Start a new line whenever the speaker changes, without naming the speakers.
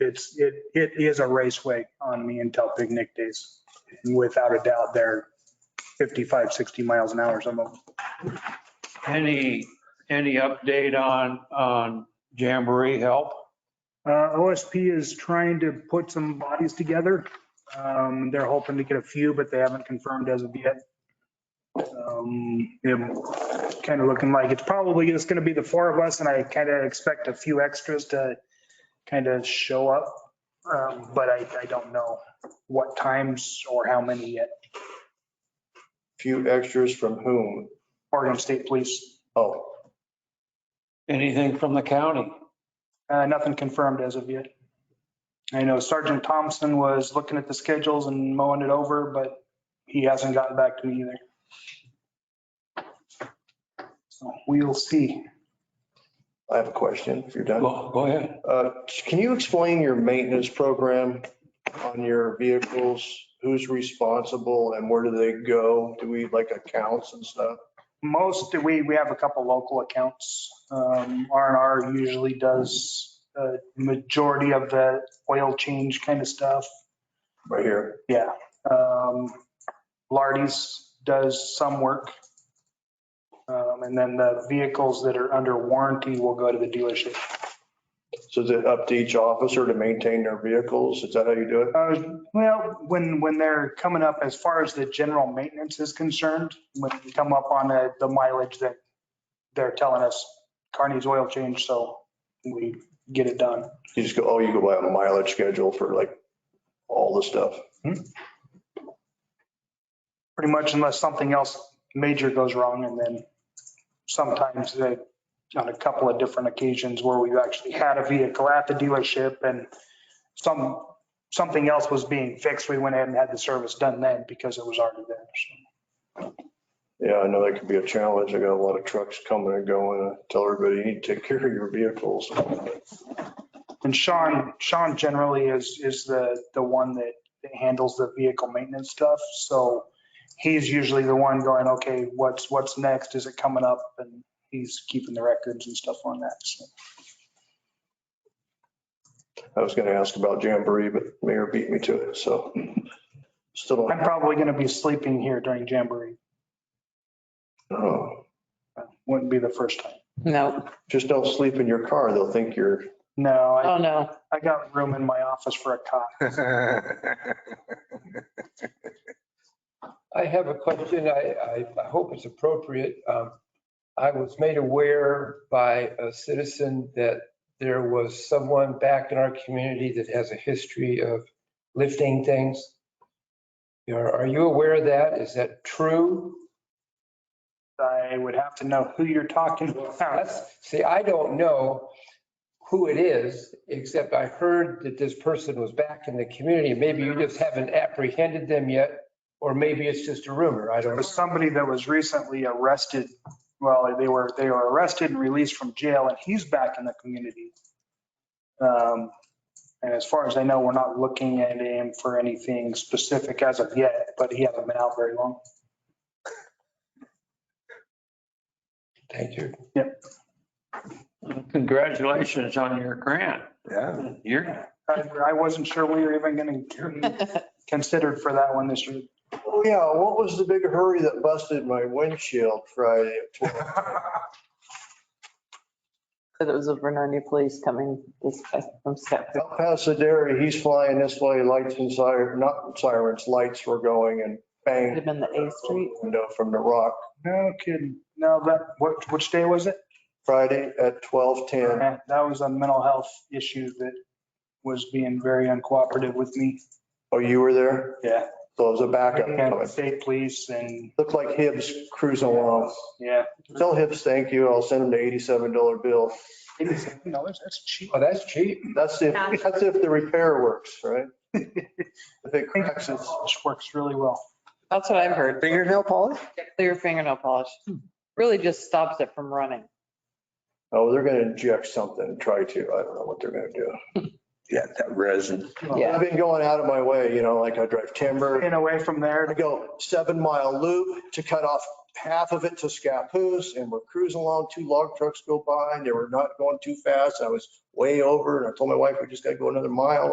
It's, it, it is a raceway on me until picnic days. Without a doubt, they're 55, 60 miles an hour, some of them.
Any, any update on, on Jamboree help?
Uh, OSP is trying to put some bodies together. Um, They're hoping to get a few, but they haven't confirmed as of yet. It's kind of looking like it's probably just going to be the four of us, and I kind of expect a few extras to kind of show up. Um, But I, I don't know what times or how many yet.
Few extras from whom?
Oregon State Police,
Oh,
Anything from the county?
uh, nothing confirmed as of yet. I know Sergeant Thompson was looking at the schedules and mowing it over, but he hasn't gotten back to me either. So we'll see.
I have a question if you're done.
Go go ahead.
Uh, Can you explain your maintenance program on your vehicles? Who's responsible and where do they go? Do we like accounts and stuff?
Most, we, we have a couple local accounts. Um, R and R usually does the majority of the oil change kind of stuff.
Right here.
Yeah. Um, Lardy's does some work. Um, and then the vehicles that are under warranty will go to the dealership.
So is it up to each officer to maintain their vehicles? Is that how you do it?
Uh, well, when, when they're coming up, as far as the general maintenance is concerned, when we come up on the, the mileage that they're telling us, Carney's oil change, so we get it done.
You just go, oh, you go by a mileage schedule for like all the stuff.
pretty much unless something else major goes wrong. And then sometimes they, on a couple of different occasions where we've actually had a vehicle at the dealership and some, something else was being fixed, we went ahead and had the service done then because it was already there. So
Yeah, I know that could be a challenge. I got a lot of trucks coming and going. I Tell everybody you need to take care of your vehicles.
And Sean, Sean generally is, is the, the one that that handles the vehicle maintenance stuff. So he's usually the one going, okay, what's, what's next? Is it coming up? And he's keeping the records and stuff on that. So.
I was gonna ask about Jamboree, but Mayor beat me to it, so. Still don't,
I'm probably going to be sleeping here during Jamboree.
oh.
Wouldn't be the first time.
No,
just don't sleep in your car. They'll think you're,
No, I,
oh, no.
I got room in my office for a cot.
I have a question. I, I, I hope it's appropriate. Um, I was made aware by a citizen that there was someone back in our community that has a history of lifting things. Are, are you aware of that? Is that true?
I would have to know who you're talking about.
That's, see, I don't know who it is, except I heard that this person was back in the community. Maybe you just haven't apprehended them yet, or maybe it's just a rumor. I
It
don't know.
was somebody that was recently arrested. Well, they were, they were arrested and released from jail and he's back in the community. Um, And as far as I know, we're not looking at him for anything specific as of yet, but he hasn't been out very long.
Thank you.
Congratulations on your grant.
Yeah.
You're,
I I wasn't sure we were even going to considered for that one this year.
oh yeah, what was the big hurry that busted my windshield Friday? at 12?
Said it was a Vernonia police coming this way from Stepford.
El Pasadena, he's flying this way, lights and siren, not sirens, lights were going and
Could have
bang.
been the A Street.
Window from the rock,
No kidding. No, that, what, which day was it?
Friday at 12:10.
That was a mental health issue that was being very uncooperative with me.
Oh, you were there?
Yeah.
So it was a backup. coming.
State police and,
Looked like Hibbs cruising along.
yeah.
Tell Hibbs, thank you. I'll send him the $87 bill.
Eighty-seven dollars, that's cheap.
Oh, that's cheap.
That's if, that's if the repair works, right? If it cracks,
It
it's,
works really well.
That's what I've heard.
Fingernail polish?
Clear fingernail polish. Really just stops it from running.
oh, they're gonna inject something, try to. I don't know what they're gonna do.
Yeah, that resin.
Yeah.
I've been going out of my way, you know, like I drive timber.
And away from there
I
to
go seven mile loop to cut off half of it to Scappoose and we're cruising along, two log trucks go by and they were not going too fast. I was way over and I told my wife, we just gotta go another mile